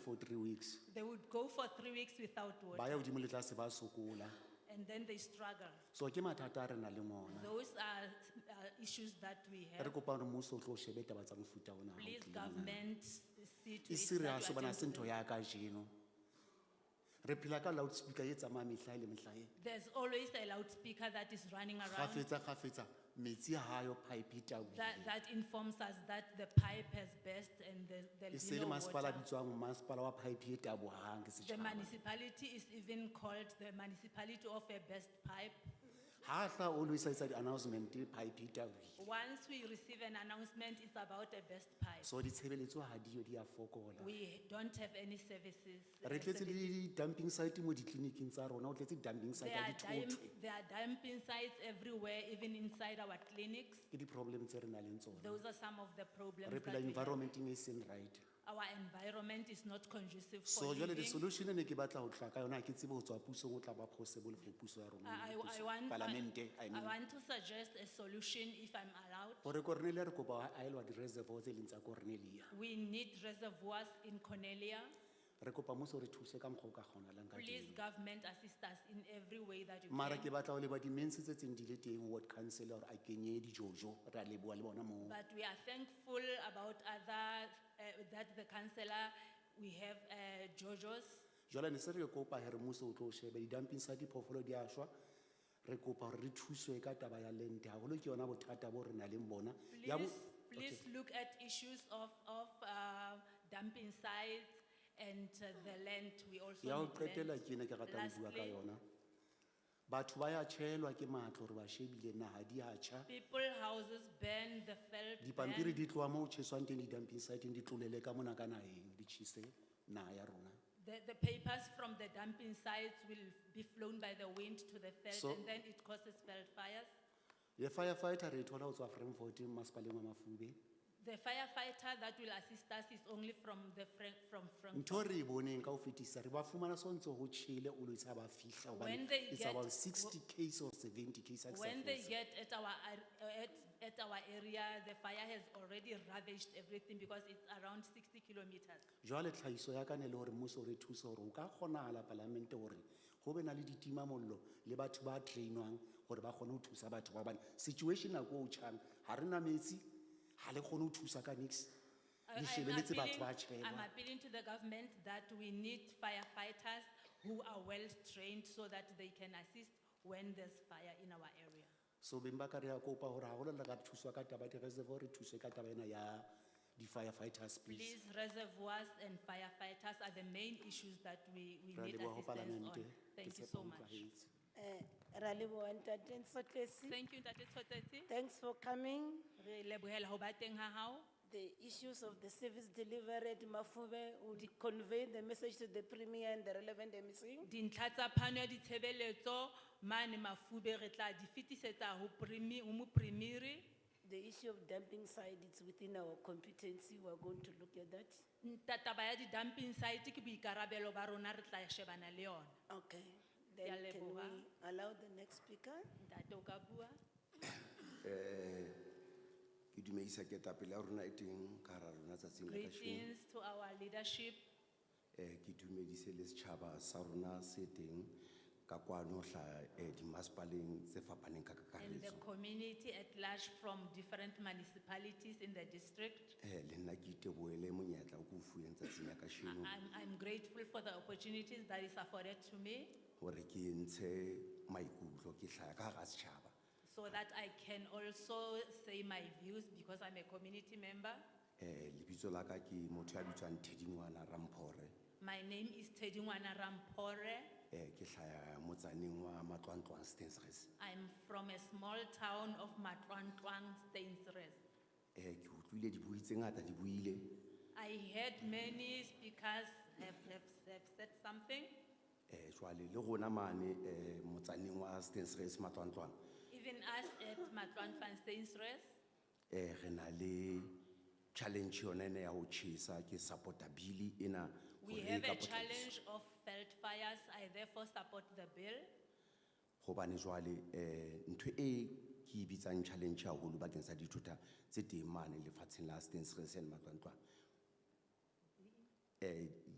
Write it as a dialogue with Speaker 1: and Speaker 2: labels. Speaker 1: three weeks.
Speaker 2: They would go for three weeks without
Speaker 1: Ba
Speaker 2: water
Speaker 1: ya hodimo le tlase ba sokola.
Speaker 2: and then they struggle.
Speaker 1: So ke mathata a re nang le ona.
Speaker 2: Those are uh, issues that we
Speaker 1: Re
Speaker 2: have.
Speaker 1: kopa hore mmuso o tlo shebe taba tsa mofuta ona. ha o
Speaker 2: Please
Speaker 1: tlile mona.
Speaker 2: government see to
Speaker 1: E
Speaker 2: it that
Speaker 1: serious
Speaker 2: you
Speaker 1: hobane ha se
Speaker 2: attend to
Speaker 1: ntho
Speaker 2: them.
Speaker 1: ya kajeno. Re phela ka loudspeaker e tsamayang mehla le mehla e.
Speaker 2: There's always a loudspeaker that is running around
Speaker 1: Kgafetsa kgafetsa metsi ha ayo pipe e
Speaker 2: that,
Speaker 1: tabohile.
Speaker 2: that informs us that the pipe has burst and there-
Speaker 1: E
Speaker 2: there'll
Speaker 1: se
Speaker 2: be
Speaker 1: le
Speaker 2: no
Speaker 1: masepala a
Speaker 2: water.
Speaker 1: bitswang masepala wa pipe e tabohang ke
Speaker 2: The
Speaker 1: setjhaba.
Speaker 2: municipality is even called the municipality of a best pipe.
Speaker 1: Ha a tla always a etsa di-announcement pipe e tabohile.
Speaker 2: Once we receive an announcement, it's about a best pipe.
Speaker 1: So ditshebeletso ha diyo di a fokola.
Speaker 2: We don't have any services. uh,
Speaker 1: Re tletse le
Speaker 2: services.
Speaker 1: di-dumping site mo ditleliniking tsa rona, o tletse di-dumping site
Speaker 2: There
Speaker 1: ya
Speaker 2: are
Speaker 1: dithoto.
Speaker 2: dump, there are dumping sites everywhere, even inside our clinics.
Speaker 1: Ke di-problem tse re nang le tsona.
Speaker 2: Those are some of the problems
Speaker 1: Re
Speaker 2: that
Speaker 1: phela
Speaker 2: we have.
Speaker 1: environment-eng e seng right.
Speaker 2: Our environment is not conducive
Speaker 1: So
Speaker 2: for
Speaker 1: jwale the
Speaker 2: living.
Speaker 1: solution e ne ke batla ho tla ka yona, ha ke tsebe ho tswa pusong, o tla ba possible for puso ya rona.
Speaker 2: I, I-
Speaker 1: puso-
Speaker 2: I want. I-
Speaker 1: Palamente, I
Speaker 2: I
Speaker 1: mean.
Speaker 2: want to suggest a solution if I'm allowed.
Speaker 1: Hore Cornelia re kopa a elwa di-reservoir tse leng tsa Cornelia.
Speaker 2: We need reservoirs in Cornelia.
Speaker 1: Re kopa mmuso o re thuse ka mokgwa o ka kgonahalang ka
Speaker 2: Please,
Speaker 1: teng.
Speaker 2: government assist us in every way that you
Speaker 1: Mara
Speaker 2: can.
Speaker 1: ke batla ho leba di-mens tse tseng di le teng, ward councillor a kenye di-jojo, re a leboha le bona moo.
Speaker 2: But we are thankful about other, uh, that the councillor, we have uh, JoJo's.
Speaker 1: Jwale ne se re kopa hee mmuso o tlo shebe di-dumping sa diphoofolo di a shwa. Re kopa hore re thuswe ka taba ya lente haholo ke yona bothata bo re nang le bona. Ya bo-
Speaker 2: Please, please look at issues of, of uh, dumping sites and uh, the land, we also
Speaker 1: Ya ho
Speaker 2: need
Speaker 1: qetela
Speaker 2: land.
Speaker 1: ke ne ke ratang ho bua ka
Speaker 2: Lastly-
Speaker 1: yona. Batho ba ya tjhelwa ke matlo hore ba shebile naha di a tjha.
Speaker 2: People houses burn, the felt
Speaker 1: Dipampiri
Speaker 2: burn.
Speaker 1: di tloha moo ho tjheswang teng di-dumping site-eng di tlolele ka mona ka naheng di tjhese naha ya rona.
Speaker 2: The, the papers from the dumping sites will be flown by the wind to the
Speaker 1: So-
Speaker 2: felt and then it causes felt fires.
Speaker 1: Le firefighter re e thola ho tswa Frankfort masepaleng wa Mafube.
Speaker 2: The firefighter that will assist us is only from the Frank, from Frank.
Speaker 1: ntho re e boneng ka ho fetisa re ba fumana sontso ho tjhele o lo isa ba fihla hobane
Speaker 2: When they
Speaker 1: it's
Speaker 2: get-
Speaker 1: about sixty case or seventy case a ke sa
Speaker 2: When they
Speaker 1: fose.
Speaker 2: get at our, ar- uh, at, at our area, the fire has already ravaged everything because it's around sixty kilometers.
Speaker 1: jwale tlhahiso ya ka ne e le hore mmuso o re thuse hore o ka kgonahala palamente hore ho be na le ditimamollo le batho ba trainwang hore ba kgone ho thusa batho ba hobane situation nako e o tjhang ha re na metsi ha le kgone ho thusa ka nix
Speaker 2: I-
Speaker 1: le
Speaker 2: I'm
Speaker 1: shebeletse batho ba
Speaker 2: appealing- I'm
Speaker 1: tjhelwa
Speaker 2: appealing to the government that we need firefighters who are well-trained so that they can assist when there's fire in our area.
Speaker 1: so beng ba ka re ya kopa hore ha holo le ka thuswa ka taba ya di-reservoir re thuswe ka taba ena ya di-firefighters please
Speaker 2: Please, reservoirs and firefighters are the main issues that we, we
Speaker 1: Ra
Speaker 2: need
Speaker 1: leboha ho
Speaker 2: assistance
Speaker 1: Palamente.
Speaker 2: on.
Speaker 1: Ke
Speaker 2: Thank you
Speaker 1: tshepa
Speaker 2: so
Speaker 1: o
Speaker 2: much.
Speaker 1: utlwahetse.
Speaker 3: Eh, ra leboha ntate Nsotlesi.
Speaker 2: Thank you, Ntate Tshotetse.
Speaker 3: Thanks for coming.
Speaker 2: Re lebohela ho ba teng ha hao.
Speaker 3: The issues of the service delivery at Mafube would convey the message to the premier and the relevant emissary.
Speaker 2: Dintlha tsa phano ya ditshebeletso mane Mafube re tla di fetisetsa ho primi, ho mopremiri.
Speaker 3: The issue of dumping site, it's within our competency, we're going to look at that.
Speaker 2: Ntataba ya di-dumping site ke boikarabelo ba rona re tla shebana le yona.
Speaker 3: Okay,
Speaker 2: Ke a
Speaker 3: then can we
Speaker 2: leboha.
Speaker 3: allow the next speaker?
Speaker 2: Ntate o ka bua.
Speaker 4: ke dumedisa ketapele ya rona e teng ka hara rona tsatsing la kasheno
Speaker 2: Greetings to our leadership.
Speaker 4: um ke dumedise le setšhaba sa rona se teng ka kwano hla um dimasepaleng tse fapaneng ka
Speaker 2: And the
Speaker 4: kakaretso
Speaker 2: community at large from different municipalities in the district.
Speaker 4: um le nna ke iteboele monyetla o ko o fueng tsatsing la
Speaker 2: I-
Speaker 4: kasheno
Speaker 2: I'm, I'm grateful for the opportunities that is afforded to me
Speaker 4: gore ke ntshe maikutlo ke tlhaya ka gara setšhaba
Speaker 2: so that I can also say my views because I'm a community member.
Speaker 4: um lebitso la ka ke motho ya bitswang thedingwana ramphore
Speaker 2: My name is Tedingwana Rampore.
Speaker 4: um ke tlhaya motsaneng wa matlwantlwang stansres
Speaker 2: I'm from a small town of Matlantlang, Stainsres.
Speaker 4: um ke utlwile dibui tse ngata di buile
Speaker 2: I heard many speakers have, have, have said something.
Speaker 4: Eh, jwale le rona mane eh, motsaneng wa Stensres matlwantlwang
Speaker 2: Even us at Matlantlang, Stainsres,
Speaker 4: eh, re na le challenge yona ena ya ho tjhesa ke support-a bili ena.
Speaker 2: we
Speaker 4: hore e
Speaker 2: have
Speaker 4: ka
Speaker 2: a
Speaker 4: potlakiswa.
Speaker 2: challenge of felt fires. I therefore support the bill.
Speaker 4: Hobane jwale eh, ntho e ke e bitsang challenge haholo bakeng sa dithuta tse teng mane lefatsheng la Stensres and matlwantlwang. Eh,